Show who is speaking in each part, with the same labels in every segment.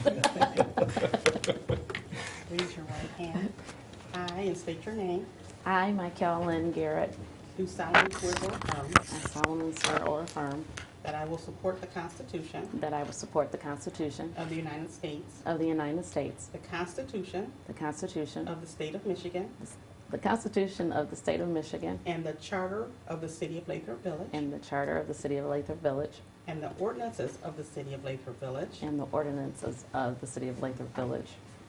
Speaker 1: Raise your right hand. I, and state your name,
Speaker 2: I, Michael Lynn Garrett,
Speaker 1: do solemnly swear or affirm
Speaker 2: I solemnly swear or affirm
Speaker 1: that I will support the Constitution
Speaker 2: that I will support the Constitution
Speaker 1: of the United States,
Speaker 2: of the United States,
Speaker 1: the Constitution
Speaker 2: the Constitution,
Speaker 1: of the State of Michigan,
Speaker 2: the Constitution of the State of Michigan,
Speaker 1: and the Charter of the City of Lathrop Village,
Speaker 2: and the Charter of the City of Lathrop Village,
Speaker 1: and the ordinances of the City of Lathrop Village,
Speaker 2: and the ordinances of the City of Lathrop Village,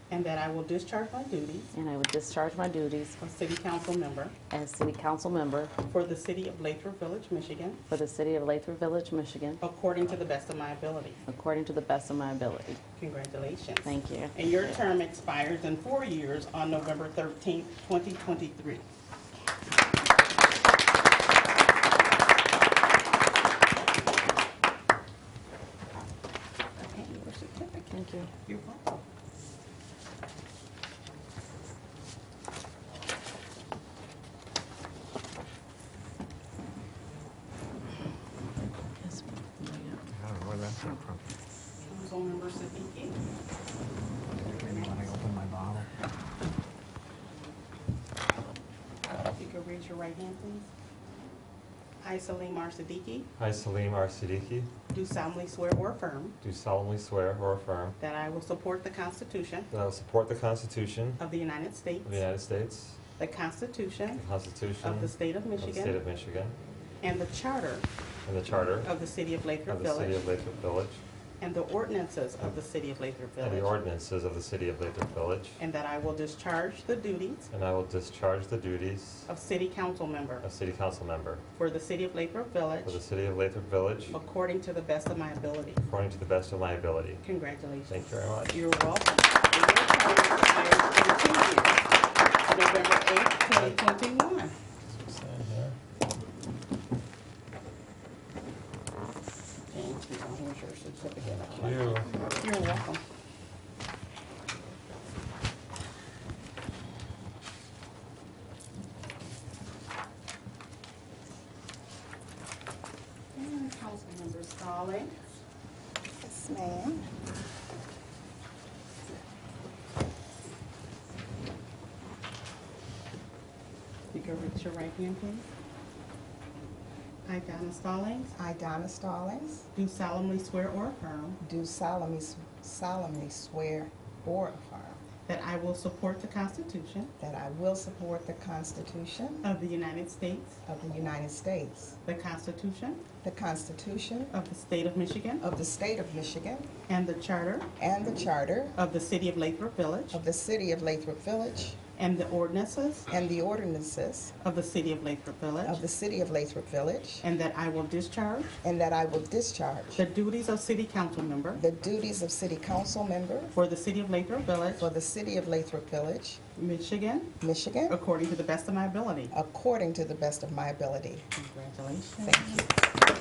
Speaker 1: and that I will discharge my duties
Speaker 2: and I will discharge my duties
Speaker 1: of City Council member
Speaker 2: as City Council Member
Speaker 1: for the City of Lathrop Village, Michigan,
Speaker 2: for the City of Lathrop Village, Michigan,
Speaker 1: according to the best of my ability.
Speaker 2: according to the best of my ability.
Speaker 1: Congratulations.
Speaker 2: Thank you.
Speaker 1: And your term expires in four years on November 13th, 2023.
Speaker 2: Thank you.
Speaker 1: You're welcome.
Speaker 3: I don't know where that came from.
Speaker 1: Councilmember Siddiqui.
Speaker 3: When I opened my bottle.
Speaker 1: If you could raise your right hand, please. I, Salim R. Siddiqui,
Speaker 4: I, Salim R. Siddiqui,
Speaker 1: do solemnly swear or affirm
Speaker 4: do solemnly swear or affirm
Speaker 1: that I will support the Constitution
Speaker 4: that I will support the Constitution
Speaker 1: of the United States,
Speaker 4: of the United States,
Speaker 1: the Constitution
Speaker 4: the Constitution
Speaker 1: of the State of
Speaker 4: of the State
Speaker 1: Michigan,
Speaker 4: of Michigan,
Speaker 1: and the Charter
Speaker 4: and the Charter
Speaker 1: of the City of Lathrop
Speaker 4: of the City
Speaker 1: Village,
Speaker 4: of Lathrop Village,
Speaker 1: and the ordinances of the City of Lathrop
Speaker 4: and the
Speaker 1: Village,
Speaker 4: ordinances of the City of Lathrop Village,
Speaker 1: and that I will discharge the duties
Speaker 4: and I will discharge the duties
Speaker 1: of City Council member
Speaker 4: of City Council Member
Speaker 1: for the City of Lathrop Village
Speaker 4: for the City of Lathrop Village
Speaker 1: according to the best of my ability.
Speaker 4: according to the best of my ability.
Speaker 1: Congratulations.
Speaker 4: Thank you very much.
Speaker 1: You're welcome. And your term expires in two years, November 8th, 2021.
Speaker 4: Sign there.
Speaker 1: Thank you. Here's your certificate.
Speaker 4: Thank you.
Speaker 1: You're welcome. And Councilmember Stallings.
Speaker 5: Yes, ma'am.
Speaker 1: You can reach your right hand, please. I, Donna Stallings,
Speaker 5: I, Donna Stallings,
Speaker 1: do solemnly swear or affirm
Speaker 5: do solemnly solemnly swear or affirm
Speaker 1: that I will support the Constitution
Speaker 5: that I will support the Constitution
Speaker 1: of the United States,
Speaker 5: of the United States,
Speaker 1: the Constitution
Speaker 5: the Constitution
Speaker 1: of the State of Michigan,
Speaker 5: of the State of Michigan,
Speaker 1: and the Charter
Speaker 5: and the Charter
Speaker 1: of the City of Lathrop Village,
Speaker 5: of the City of Lathrop Village,
Speaker 1: and the ordinances
Speaker 5: and the ordinances
Speaker 1: of the City of Lathrop
Speaker 5: of
Speaker 1: Village,
Speaker 5: the City of Lathrop Village,
Speaker 1: and that I will discharge
Speaker 5: and that I will discharge
Speaker 1: the duties of City Council Member
Speaker 5: the duties of City Council Member
Speaker 1: for the City of Lathrop Village,
Speaker 5: for the City of Lathrop Village,
Speaker 1: Michigan,
Speaker 5: Michigan,
Speaker 1: according to the best of my ability.
Speaker 5: according to the best of my ability.
Speaker 1: Congratulations.
Speaker 5: Thank you.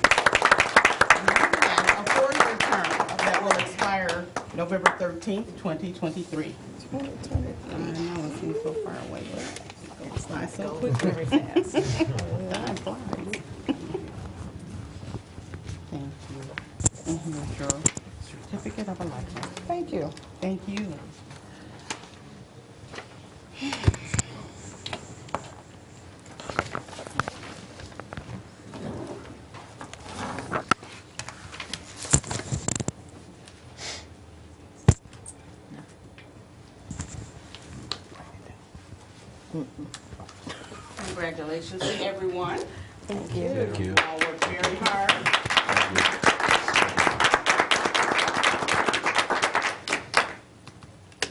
Speaker 1: Now, A four-year term that will expire November 13th, 2023. I know, it seems so far away, but it flies so quickly. Time flies. Thank you. And here's your certificate of election.
Speaker 5: Thank you.
Speaker 1: Thank you. Congratulations to everyone.
Speaker 2: Thank you.
Speaker 4: Thank you.
Speaker 1: You all worked very hard.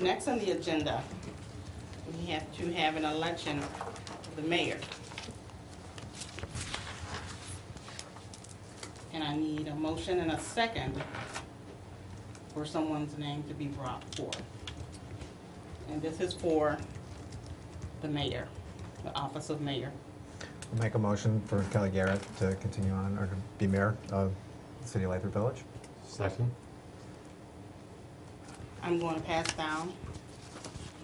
Speaker 1: Next on the agenda, we have to have an election of the mayor. And I need a motion and a second for someone's name to be brought forth. And this is for the mayor, the office of mayor.
Speaker 3: I'll Make a motion for Kelly Garrett to continue on, or to be mayor of the City of Lathrop Village.
Speaker 4: Second?
Speaker 1: I'm going to pass down